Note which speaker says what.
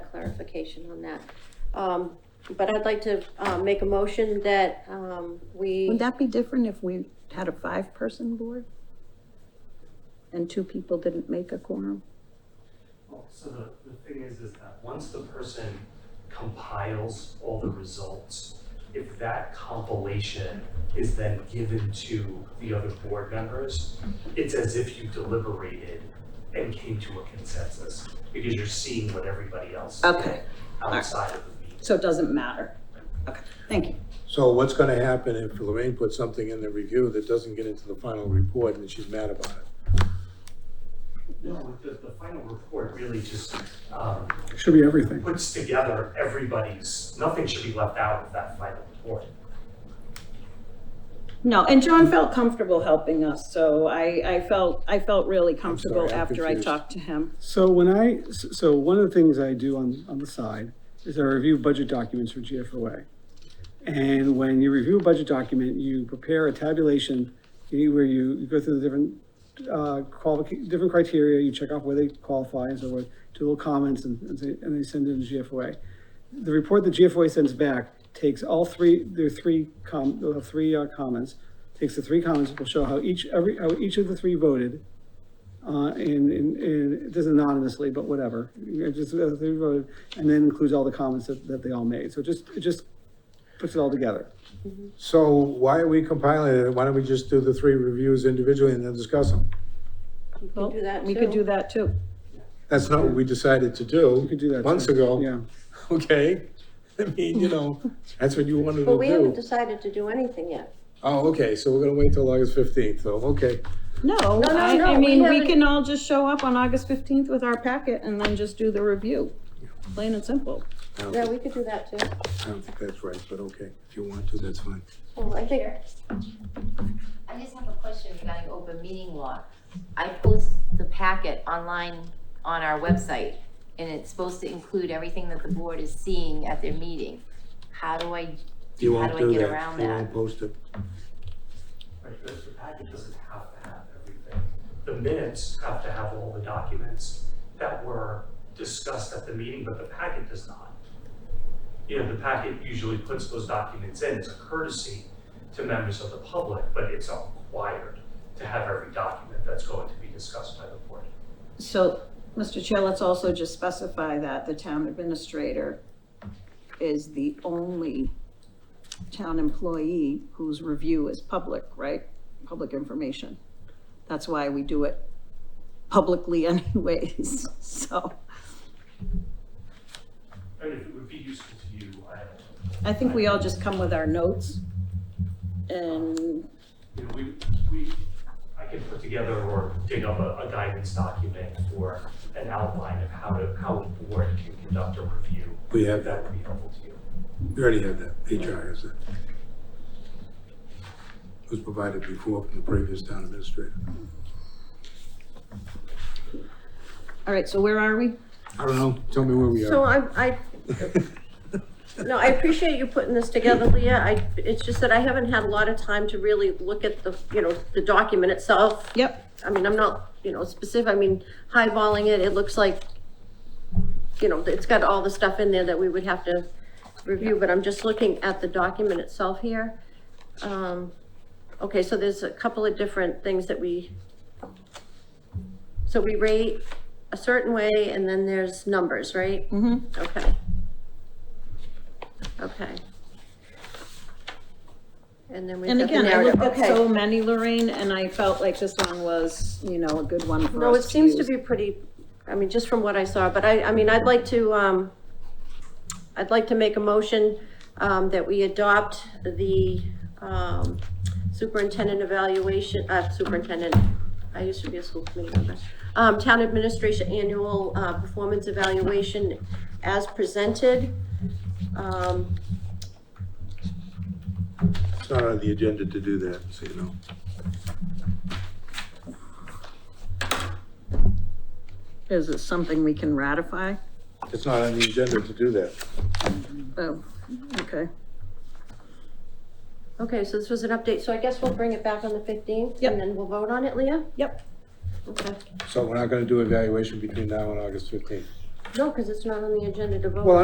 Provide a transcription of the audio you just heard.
Speaker 1: clarification on that. Um, but I'd like to, uh, make a motion that, um, we,
Speaker 2: Would that be different if we had a five-person board? And two people didn't make a quorum?
Speaker 3: Well, so the, the thing is, is that once the person compiles all the results, if that compilation is then given to the other board members, it's as if you deliberated and came to a consensus, because you're seeing what everybody else did
Speaker 2: Okay,
Speaker 3: outside of the meeting.
Speaker 2: so it doesn't matter. Okay, thank you.
Speaker 4: So what's gonna happen if Lorraine puts something in the review that doesn't get into the final report and she's mad about it?
Speaker 3: No, the, the final report really just, um,
Speaker 5: Should be everything.
Speaker 3: puts together everybody's, nothing should be left out of that final report.
Speaker 2: No, and John felt comfortable helping us, so I, I felt, I felt really comfortable
Speaker 4: sorry, I'm
Speaker 2: after I
Speaker 4: confused.
Speaker 2: talked to him.
Speaker 5: So when I, s- so one of the things I do on, on the side is I review budget documents for GFOA. And when you review a budget document, you prepare a tabulation you- where you, you go through the different, uh, qualific, different criteria, you check off where they qualify and so forth, do little comments and, and they- and they send it to GFOA. The report that GFOA sends back takes all three, there are three com, they'll have three, uh, comments. Takes the three comments, will show how each, every, how each of the three voted, uh, and, and, and it does anonymously, but whatever. It just, uh, they voted, and then includes all the comments that, that they all made. So it just, it just puts it all together.
Speaker 4: So why are we compiling it? Why don't we just do the three reviews individually and then discuss them?
Speaker 1: we can do that too.
Speaker 2: We could do that too.
Speaker 4: That's not what we decided to do.
Speaker 5: You could do that.
Speaker 4: Months
Speaker 5: too.
Speaker 4: ago.
Speaker 5: Yeah.
Speaker 4: Okay, I mean, you know, that's what you wanted
Speaker 1: But
Speaker 4: to
Speaker 1: we haven't
Speaker 4: do.
Speaker 1: decided to do anything yet.
Speaker 4: Oh, okay, so we're gonna wait till August fifteenth, so, okay.
Speaker 2: No,
Speaker 1: no,
Speaker 2: I,
Speaker 1: no,
Speaker 2: I
Speaker 1: we
Speaker 2: mean, we
Speaker 1: haven't-
Speaker 2: can all just show up on August fifteenth with our packet and then just do the review. Plain and simple.
Speaker 4: I don't
Speaker 1: Yeah,
Speaker 4: think-
Speaker 1: we could do that too.
Speaker 4: I don't think that's right, but okay, if you want to, that's fine.
Speaker 1: Well, I think,
Speaker 6: I just have a question regarding open meeting law. I post the packet online on our website, and it's supposed to include everything that the board is seeing at their meeting. How do I,
Speaker 4: You
Speaker 6: How
Speaker 4: won't
Speaker 6: do I
Speaker 4: do
Speaker 6: get
Speaker 4: that,
Speaker 6: around
Speaker 4: you
Speaker 6: that?
Speaker 4: won't post it.
Speaker 3: Right, the, the packet doesn't have to have everything. The minutes have to have all the documents that were discussed at the meeting, but the packet does not. You know, the packet usually puts those documents in as a courtesy to members of the public, but it's not required to have every document that's going to be discussed by the board.
Speaker 2: So, Mr. Chair, let's also just specify that the town administrator is the only town employee whose review is public, right? Public information. That's why we do it publicly anyways, so
Speaker 3: I mean, if it would be useful to you, I don't know.
Speaker 2: I think we all just come with our notes. And,
Speaker 3: you know, we, we, I can put together or dig up a, a guidance document for an outline of how to, how a board can conduct a review.
Speaker 4: We have that,
Speaker 3: That would be helpful to you.
Speaker 4: we already have that, HR has that. It was provided before from the previous town administrator.
Speaker 2: all right, so where are we?
Speaker 4: I don't know, tell me where we
Speaker 1: so
Speaker 4: are.
Speaker 1: I, I, No, I appreciate you putting this together, Leah. I, it's just that I haven't had a lot of time to really look at the, you know, the document itself.
Speaker 2: Yep,
Speaker 1: I mean, I'm not, you know, specific, I mean, highballing it, it looks like, you know, it's got all the stuff in there that we would have to review, but I'm just looking at the document itself here. Um, okay, so there's a couple of different things that we, so we rate a certain way, and then there's numbers, right?
Speaker 2: mm-hmm.
Speaker 1: Okay. Okay. And then we've
Speaker 2: And
Speaker 1: got the
Speaker 2: again, I looked
Speaker 1: narrative,
Speaker 2: at so
Speaker 1: okay.
Speaker 2: many, Lorraine, and I felt like this one was, you know, a good one for
Speaker 1: No, it
Speaker 2: us to
Speaker 1: seems to
Speaker 2: use.
Speaker 1: be pretty, I mean, just from what I saw, but I, I mean, I'd like to, um, I'd like to make a motion, um, that we adopt the, um, superintendent evaluation, uh, superintendent, I used to be a school committee member, um, town administration annual, uh, performance evaluation as presented. Um,
Speaker 4: It's not on the agenda to do that, so you know.
Speaker 2: Is it something we can ratify?
Speaker 4: It's not on the agenda to do that.
Speaker 2: Oh, okay.
Speaker 1: okay, so this was an update, so I guess we'll bring it back on the fifteenth,
Speaker 2: Yep.
Speaker 1: and then we'll vote on it, Leah?
Speaker 2: Yep.
Speaker 1: Okay.
Speaker 4: So we're not gonna do evaluation between now and August fifteenth.
Speaker 1: No, because it's not on the agenda to vote.
Speaker 5: Well,